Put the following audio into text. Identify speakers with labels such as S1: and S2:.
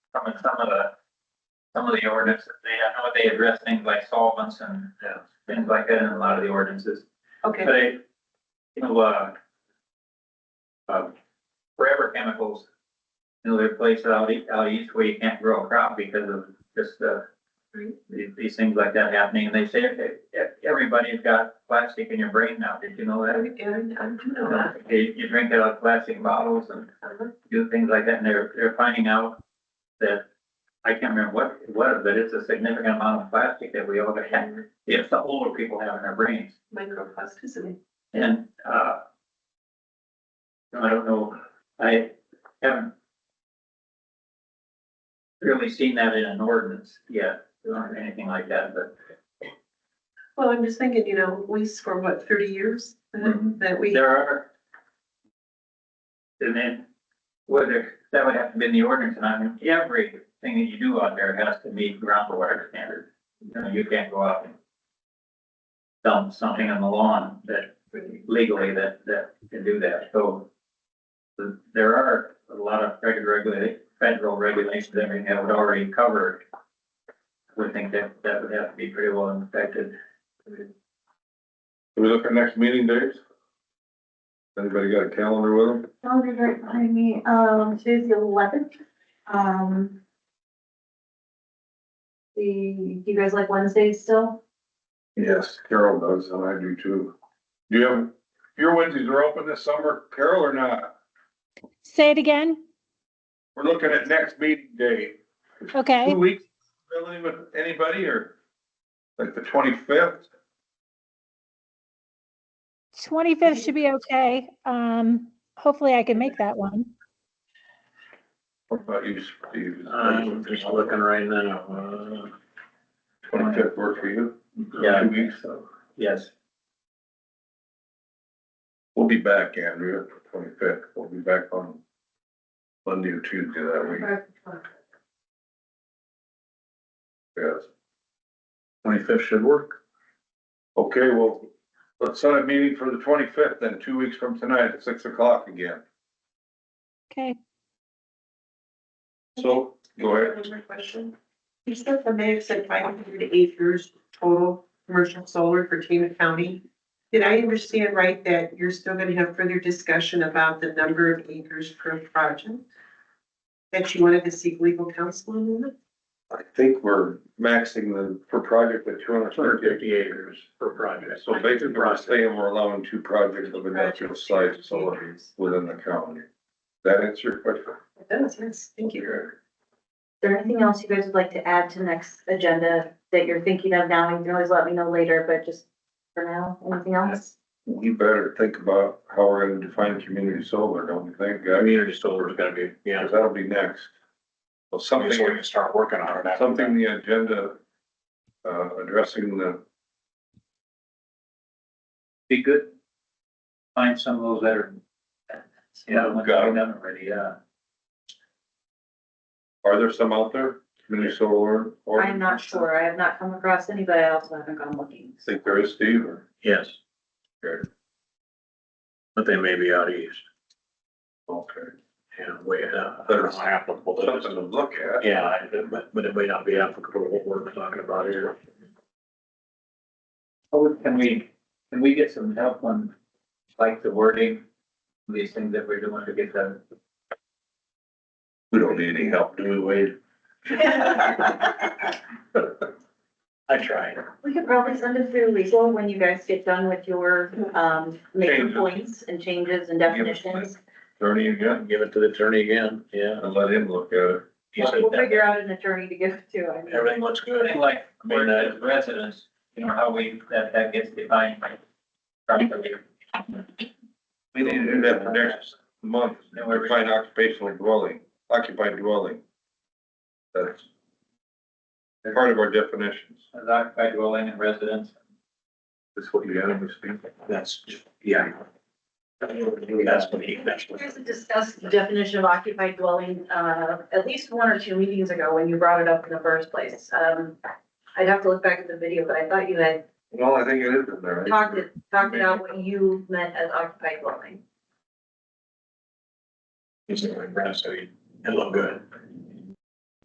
S1: some of, some of the, some of the ordinances, they, I know they address things like solvents and
S2: Yeah.
S1: things like that in a lot of the ordinances.
S3: Okay,
S1: They, you know, uh, uh, forever chemicals, you know, they're placed out, e- out east where you can't grow a crop because of just, uh,
S3: Right.
S1: these, these things like that happening, and they say, "Okay, e- everybody's got plastic in your brain now, did you know
S3: I, I
S1: that?
S3: do know that.
S1: You, you drink out of plastic bottles and
S3: Uh-huh.
S1: do things like that, and they're, they're finding out that, I can't remember what it was, but it's a significant amount of plastic that we all have, if the older people have in their brains,
S3: Microplasticity.
S1: and, uh, I don't know, I haven't really seen that in an ordinance yet, or anything like that, but
S3: Well, I'm just thinking, you know, lease for what, thirty years that
S2: Mm-hmm.
S1: Mhm.
S3: that we,
S1: there are. And then, whether, that would have to be in the ordinance, and I mean, everything that you do out there has to meet groundwater standards. You know, you can't go out and dump something on the lawn that legally that, that can do that, so. the- There are a lot of federal regula- federal regulations, that everything that would already cover. it. I would think that, that would have to be pretty well inspected.
S2: Can we look at next meeting days? Anybody got a calendar with them?
S4: Calendar right behind me, um, today's the eleventh, um. The, do you guys like Wednesdays still?
S2: Yes, Carol does, and I do too. Do you have, your Wednesdays are open this summer, Carol, or not?
S5: Say it again.
S2: We're looking at next meeting day.
S5: Okay.
S2: Two weeks, really, with anybody, or like the twenty-fifth?
S5: 25th should be okay. Um, hopefully I can make that one.
S2: What about you, Steve?
S6: I'm just looking right now. uh,
S2: Twenty-fifth work for you?
S1: Yeah.
S2: Two weeks,
S1: So, yes.
S2: we'll be back, Andrea, twenty-fifth, we'll be back on Monday or Tuesday that week. Yes. Twenty-fifth should work. Okay, well, let's set a meeting for the twenty-fifth then, two weeks from tonight at six o'clock again.
S5: Okay.
S2: So, go ahead.
S3: Another question. You said the mayor said five hundred acres total commercial solar for Tama County. Did I understand right that you're still gonna have further discussion about the number of acres per project? That you wanted to seek legal counsel on that?
S2: I think we're maxing the, per project at two hundred and fifty acres.
S6: Per project.
S2: So basically, we're saying we're allowing two projects of industrial size solar within the county. That answer your question?
S3: It does, yes, thank you.
S4: Is there anything else you guys would like to add to next agenda that you're thinking of now? You can always let me know later, but just for now, anything else?
S2: We better think about how we're gonna define community solar, don't you think, guys?
S6: Community solar is gonna be, yeah.
S2: Cause that'll be next. Well,
S6: Something we
S2: something,
S6: can start working on it. after
S2: something the agenda, uh, addressing the,
S1: be good. Find some of those that are. Yeah, ones that we've done already, yeah.
S2: are there some out there, community solar? or-
S4: I'm not sure, I have not come across any, but I also haven't gone looking.
S2: Think there is, Steve, or?
S6: that. Yes. Good. But they may be out east,
S2: Okay.
S6: and way, uh, I don't know how applicable that
S2: Something to
S6: is.
S2: look at.
S6: Yeah, I- but, but it may not be applicable to what we're talking about here.
S1: Oh, can we, can we get some help on, like, the wording, of these things that we're doing to get done?
S2: We don't need any help, do we, Wade?
S6: I tried.
S4: We could probably send it through legal when you guys get done with your, um, major
S2: Changes.
S4: points and changes and
S2: Give us-
S4: definitions.
S2: Attorney again,
S6: Give it to the attorney again, yeah.
S2: and let him look at it.
S6: He said
S4: We'll we'll figure out an attorney to give it to, I mean.
S6: Everything looks good.
S1: Something like,
S6: I mean,
S1: as residents, you know, how we, that, that gets defined by. properly.
S2: We need to do that for next month,
S1: No, we're-
S2: define occupational dwelling, occupied dwelling. That's part of our definitions.
S1: As occupied dwelling and residence.
S2: That's what you got in this thing.
S6: That's, yeah. That's what he, that's what.
S4: You guys had discussed the definition of occupied dwelling, uh, at least one or two meetings ago when you brought it up in the first place. Um, I'd have to look back at the video, but I thought you had
S2: Well, I think it is in there.
S4: talked it, talked about what you meant as occupied dwelling.
S6: He's doing that, so he, it looked good.